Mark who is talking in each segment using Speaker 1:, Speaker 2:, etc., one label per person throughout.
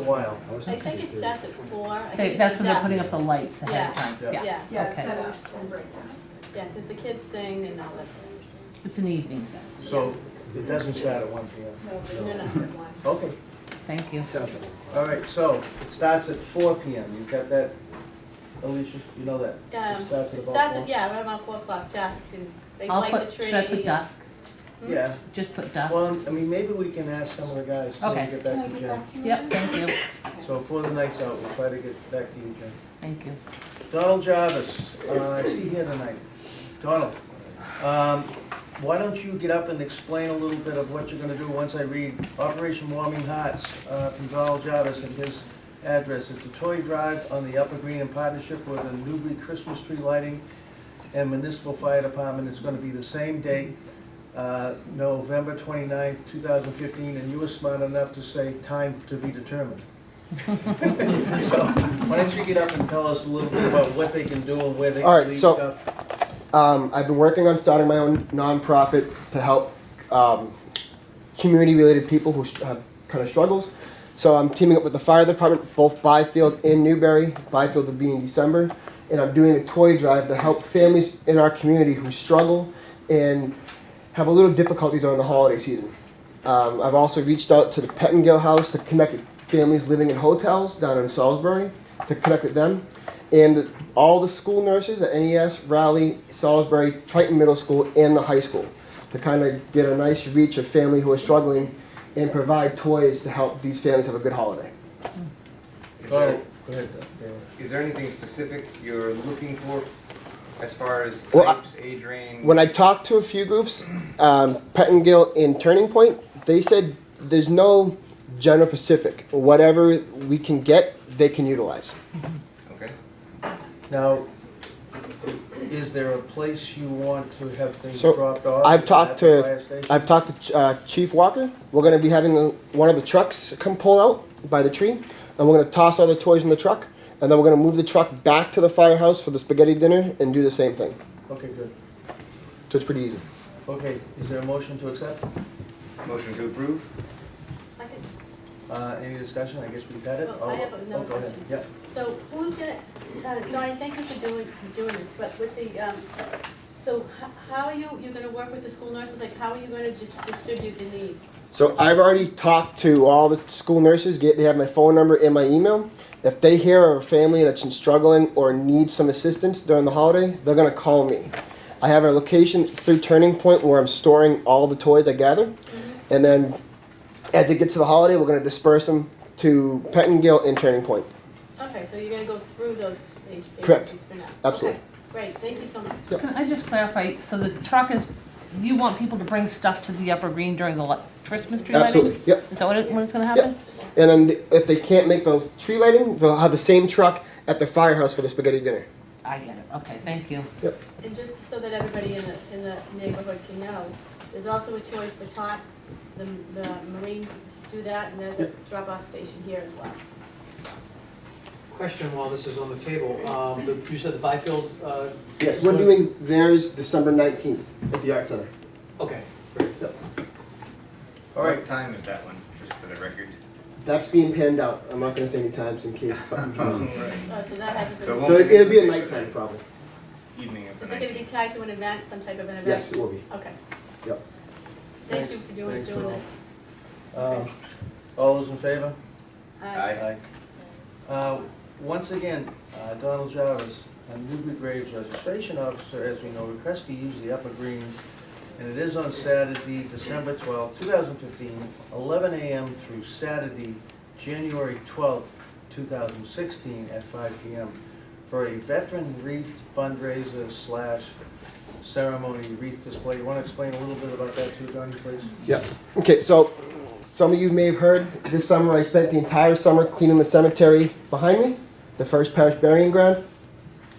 Speaker 1: a while.
Speaker 2: was
Speaker 3: I
Speaker 2: thinking
Speaker 3: think it
Speaker 2: they're-
Speaker 3: starts at four. I
Speaker 4: They-
Speaker 3: think
Speaker 4: That's
Speaker 3: it
Speaker 4: when they're
Speaker 3: does.
Speaker 4: putting up the lights ahead of
Speaker 3: Yeah.
Speaker 4: time,
Speaker 1: Yeah.
Speaker 4: yeah.
Speaker 3: Yeah,
Speaker 5: Yeah,
Speaker 4: Okay.
Speaker 5: set up and break down.
Speaker 3: yeah, because the kids sing and all that.
Speaker 4: It's an evening thing,
Speaker 1: So it doesn't start at one P M.
Speaker 5: No, there's
Speaker 3: No, no.
Speaker 5: another one.
Speaker 1: Okay,
Speaker 4: thank you.
Speaker 2: Seven.
Speaker 1: all right, so it starts at four P M. You got that, Alicia? You know that?
Speaker 3: Um,
Speaker 1: It starts at
Speaker 3: it
Speaker 1: about
Speaker 3: starts
Speaker 1: four?
Speaker 3: at, yeah, right about four o'clock dusk and they
Speaker 4: I'll
Speaker 3: light
Speaker 4: put,
Speaker 3: the tree.
Speaker 4: should I put dusk?
Speaker 5: Hmm?
Speaker 1: Yeah,
Speaker 4: Just put dusk?
Speaker 1: well, I mean, maybe we can ask some of the guys to
Speaker 4: Okay.
Speaker 1: get
Speaker 5: Can I
Speaker 1: back to
Speaker 5: get
Speaker 1: Jen.
Speaker 5: back to you?
Speaker 4: Yep, thank you,
Speaker 1: So before the night's out, we'll try to get back to you, Jen.
Speaker 4: thank you.
Speaker 1: Donald Jarvis, uh, I see you here tonight. Donald, um, why don't you get up and explain a little bit of what you're gonna do once I read Operation Warming Hearts uh, from Donald Jarvis and his address. It's a toy drive on the Upper Green in partnership with the Newbury Christmas Tree Lighting and Municipal Fire Department. It's gonna be the same date, uh, November 29th, thousand fifteen, and you were smart enough to say time to be determined. So, why don't you get up and tell us a little bit about what they can do and where they
Speaker 6: All
Speaker 1: can
Speaker 6: right,
Speaker 1: leave
Speaker 6: so-
Speaker 1: stuff?
Speaker 6: Um, I've been working on starting my own nonprofit to help um, community-related people who sh- have kind of struggles. So I'm teaming up with the fire department, both Byfield and Newberry. Byfield will be in December, and I'm doing a toy drive to help families in our community who struggle and have a little difficulty during the holiday season. Um, I've also reached out to the Pettingill House to connect with families living in hotels down in Salisbury to connect with them. And all the school nurses at NES, Raleigh, Salisbury, Triton Middle School, and the high school to kind of get a nice reach of family who are struggling and provide toys to help these families have a good holiday.
Speaker 7: Is there,
Speaker 1: Oh, Go
Speaker 6: Oh.
Speaker 1: ahead, Dale.
Speaker 7: is there anything specific you're looking for as far as
Speaker 6: Well, I-
Speaker 7: types, age range?
Speaker 6: When I talked to a few groups, um, Pettingill and Turning Point, they said there's no general Pacific. Whatever we can get, they can utilize.
Speaker 7: Okay.
Speaker 1: Now, is there a place you want to have things
Speaker 6: So,
Speaker 1: dropped off?
Speaker 6: I've
Speaker 1: Is it
Speaker 6: talked
Speaker 1: at the
Speaker 6: to-
Speaker 1: fire station?
Speaker 6: I've talked to Ch- uh, Chief Walker. We're going to be having uh, one of the trucks come pull out by the tree, and we're going to toss all the toys in the truck, and then we're going to move the truck back to the firehouse for the spaghetti dinner and do the same thing.
Speaker 1: Okay, good.
Speaker 6: So it's pretty easy.
Speaker 1: Okay, is there a motion to accept?
Speaker 7: Motion to approve?
Speaker 3: I could-
Speaker 1: Uh, any discussion? I guess we've had it.
Speaker 3: Oh, I have another
Speaker 1: Oh, go ahead.
Speaker 3: question.
Speaker 1: Yeah.
Speaker 3: So who's gonna, uh, Donnie, thank you for doing, for doing this, but with the, um, so h- how are you, you're gonna work with the school nurses, like how are you gonna just distribute the need?
Speaker 6: So I've already talked to all the school nurses. Get they have my phone number and my email. If they hear of a family that's struggling or needs some assistance during the holiday, they're gonna call me. I have a location through Turning Point where I'm storing all the toys I gather,
Speaker 4: Mm-hmm.
Speaker 6: and then as it gets to the holiday, we're gonna disperse them to Pettingill and Turning Point.
Speaker 3: Okay, so you're gonna go through those age
Speaker 6: Correct.
Speaker 3: agencies for now? Okay,
Speaker 6: Absolutely.
Speaker 3: Great, thank you so much.
Speaker 6: Yep.
Speaker 4: Can I just clarify, so the truck is, you want people to bring stuff to the upper green during the li- Christmas tree lighting?
Speaker 6: Absolutely. Yep.
Speaker 4: Is that what it, when it's gonna
Speaker 6: Yep.
Speaker 4: happen?
Speaker 6: And then th- if they can't make those tree lighting, they'll have the same truck at the firehouse for the spaghetti dinner.
Speaker 4: I get it, okay, thank you.
Speaker 3: And just so that everybody in the, in the neighborhood can know, there's also a choice for tots, the, the Marines do that, and there's a drop-off station here as well.
Speaker 8: Question while this is on the table, um, the- you said the Byfield, uh,
Speaker 6: Yes, we're doing theirs December 19th at the Art Center.
Speaker 8: okay, great.
Speaker 1: All right.
Speaker 7: What time is that one, just for the record?
Speaker 6: That's being panned out. I'm not gonna say any times in case something comes up.
Speaker 7: Alright.
Speaker 3: Uh, so that hasn't
Speaker 7: So
Speaker 3: been,
Speaker 7: won't
Speaker 6: So it- it'll be a nighttime problem.
Speaker 7: Evening of the
Speaker 3: is it gonna be
Speaker 7: nineteenth.
Speaker 3: tied to an event, some type of an event?
Speaker 6: Yes, it will be.
Speaker 3: Okay.
Speaker 6: Yep.
Speaker 3: Thank
Speaker 1: Thanks.
Speaker 3: you for doing,
Speaker 1: Thanks,
Speaker 3: doing
Speaker 1: Noel.
Speaker 3: this.
Speaker 1: Um, all those in favor?
Speaker 3: Aye.
Speaker 1: Uh, Once again, uh, Donald Jarvis, a Newbury Graves registration officer, as we know, requests to use the upper green, and it is on Saturday, December twelfth, two 2015, 11 a.m. through Saturday, January twelfth, two 2016, at 5 p.m. for a veteran wreath fundraiser slash ceremony wreath display. You want to explain a little bit about that too, Donnie, please?
Speaker 6: Yep. Okay, so some of you may have heard this summer I spent the entire summer cleaning the cemetery behind me, the first parish burying ground.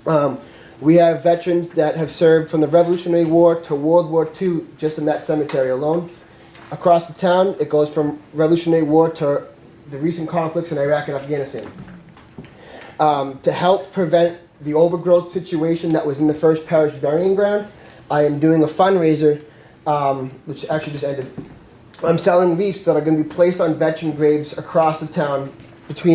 Speaker 6: Um, we have veterans that have served from the Revolutionary War to World War II just in that cemetery alone. Across the town, it goes from Revolutionary War to the recent conflicts in Iraq and Afghanistan. Um, to help prevent the overgrowth situation that was in the first parish burying ground, I am doing a fundraiser, um, which actually just ended. I'm selling wreaths that are going to be placed on veteran graves across the town